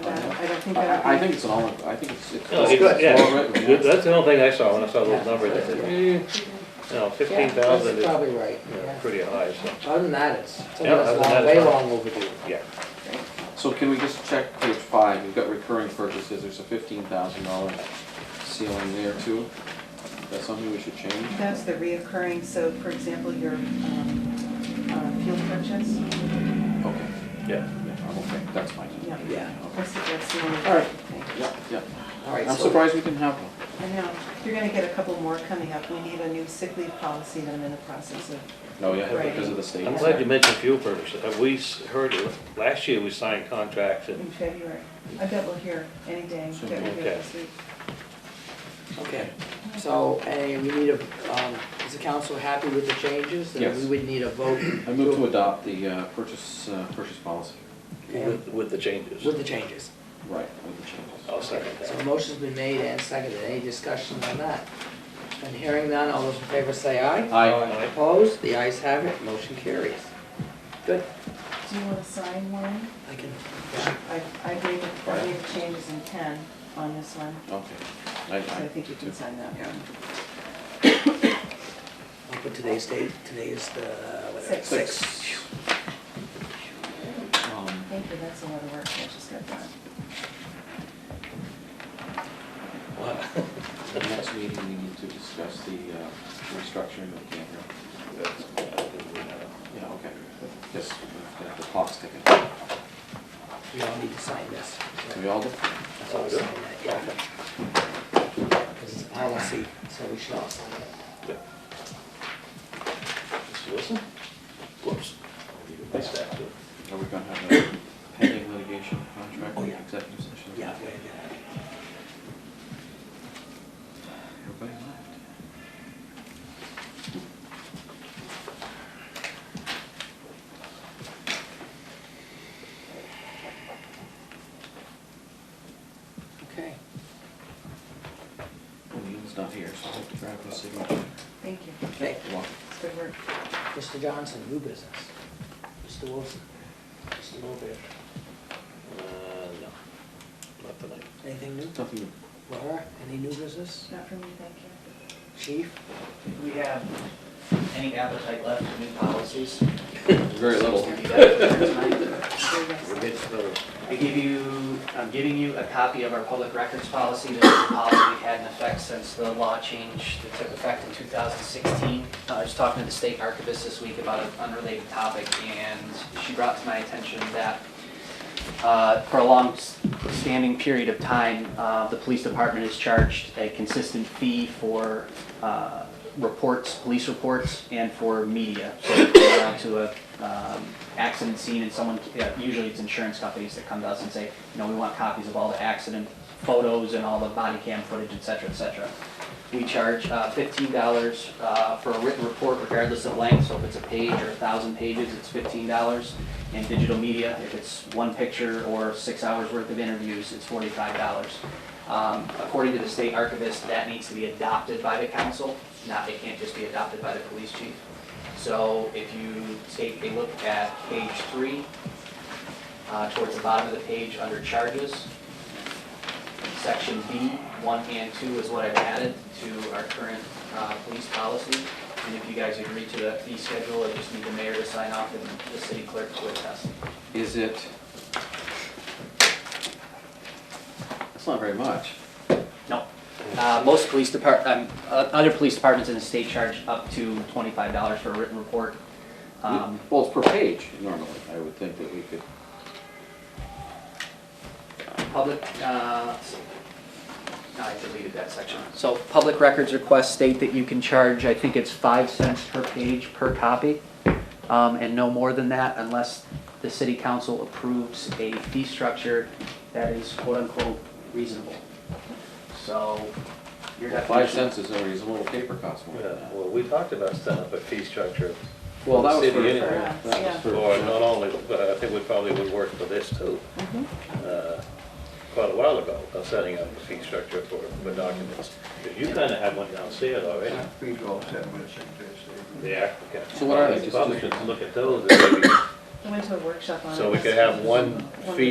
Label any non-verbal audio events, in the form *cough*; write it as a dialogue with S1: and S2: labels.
S1: think that
S2: I I
S1: would
S2: think it's an all, I think it's, it's
S3: No,
S2: it's
S3: it's-
S2: well
S3: yeah.
S2: written,
S3: Good,
S2: yeah.
S3: That's the only thing I saw when I saw those numbers, I said, eh, no,
S4: Yeah,
S3: fifteen
S4: that's
S3: thousand is you
S4: probably right,
S3: know,
S4: yeah.
S3: pretty high, so,
S4: Other than that, it's, it's
S3: Yeah, other than that,
S4: long-
S3: it's
S4: way
S3: fine.
S4: long overdue.
S3: yeah.
S2: So can we just check page five, you've got recurring purchases, there's a fifteen thousand dollar ceiling there too. Is that something we should change?
S1: be- that's the reoccurring, so for example, your um, uh, fuel purchase,
S2: Okay,
S3: Yeah.
S2: yeah, I'm okay, that's fine.
S1: yeah.
S4: Yeah.
S1: That's, that's the only
S4: All right.
S1: thing.
S2: Yeah, yeah,
S4: All right,
S2: I'm
S4: so,
S2: surprised we didn't have one.
S1: I know, you're gonna get a couple more coming up. We need a new sick leave policy that I'm in the process of.
S2: No, yeah,
S1: Right.
S2: because of the state.
S3: I'm glad you mentioned fuel purchases, Uh, we s- heard, it last year we signed contracts and
S1: in February. I bet we'll hear any day that we're
S3: Okay.
S1: here this week.
S4: okay, so, and we need a, um, is the council happy with the changes? And
S2: Yes.
S4: we would need a vote.
S2: I move to adopt the uh, purchase, uh, purchase policy.
S4: And
S3: with, with the changes.
S4: With the changes.
S2: Right, with the changes.
S3: I'll second
S4: So
S3: that.
S4: a motion's been made and seconded, any discussion on that? And hearing none, all those in favor say aye.
S2: Aye.
S4: Opposed, the ayes have it, motion carries. Good,
S1: Do you wanna sign one?
S4: I can,
S1: I, I made, I made changes in ten on this one,
S2: Okay. I-
S1: so I
S2: I-
S1: think you can sign that
S4: Yeah.
S1: one.
S4: I'll put today's date, today is the, whatever.
S1: Six.
S2: Six. Um,
S1: Thank you, that's a lot of work, I just got that.
S3: Wow.
S2: The next meeting, we need to discuss the uh, restructuring of the campground. Yeah, okay. Yes, we've got the clock's ticking.
S4: *laughs* We all need to sign this.
S2: Can we all do?
S4: That's all signed, yeah. Because it's a policy, so we should all sign it.
S3: Mr. Wilson? Whoops. Nice to have you.
S2: Are we gonna have a pending litigation contract
S4: Oh,
S2: in
S4: yeah.
S2: executive session?
S4: Yeah, we're gonna-
S2: Everybody left.
S4: okay.
S2: Well, Neil's not here, so I have to grab his signature.
S1: Thank you,
S4: Okay,
S2: You're welcome.
S1: it's good work.
S4: Mr. Johnson, new business. Mr. Wilson, Mr. Wilbur,
S3: Uh, no, not tonight.
S4: anything new?
S2: Nothing,
S4: Laura, any new business?
S1: Not for me, thank you.
S4: Chief?
S5: Do we have any appetite left for new policies?
S2: very
S4: *laughs*
S2: little.
S1: Very nice.
S3: We're getting to the-
S5: I give you, I'm giving you a copy of our public records policy, this is a policy we've had in effect since the law change that took effect in 2016. Uh, I was talking to the state archivist this week about an unrelated topic, and she brought to my attention that uh, for a long s- standing period of time, uh, the police department has charged a consistent fee for uh, reports, police reports, and for media. So *coughs* if we go down to a um, accident scene and someone, yeah, usually it's insurance companies that come to us and say, you know, we want copies of all the accident photos and all the body cam footage, et cetera, et cetera. We charge uh, fifteen dollars uh, for a written report regardless of length, so if it's a page or a thousand pages, it's fifteen dollars. In digital media, if it's one picture or six hours worth of interviews, it's forty-five dollars. Um, According to the state archivist, that needs to be adopted by the council, not, it can't just be adopted by the police chief. So if you take a look at page three, uh, towards the bottom of the page under charges, Section B, one and two is what I've added to our current uh, police policy. And if you guys agree to that fee schedule, I just need the mayor to sign off and the city clerk to attest.
S2: Is it? That's not very much.
S5: No. Uh, Most police depart, um, uh, other police departments in the state charge up to $25 for a written report. Um,
S2: Well, it's per page normally. I would think that we could,
S5: Public, uh, let's see. No, I deleted that section. So public records requests state that you can charge, I think it's five cents per page per copy, um, and no more than that unless the city council approves a fee structure that is quote-unquote reasonable. So your definition.
S2: five cents is a reasonable paper cost more than
S3: Yeah,
S2: that.
S3: well, we talked about setting up a fee structure
S2: Well, that was
S3: City
S2: for,
S3: anyway.
S2: that was for.
S3: Or not only, but I think we probably would work for this too. Uh, Quite a while ago, of setting up a fee structure for, for documents. You kind of have one downstairs already,
S6: We've all set with it,
S3: the applicant.
S2: So what are they, just-
S3: Probably should look at those, and maybe-
S1: I went to a workshop on it.
S3: so we could
S1: last
S3: have
S1: week.
S3: one fee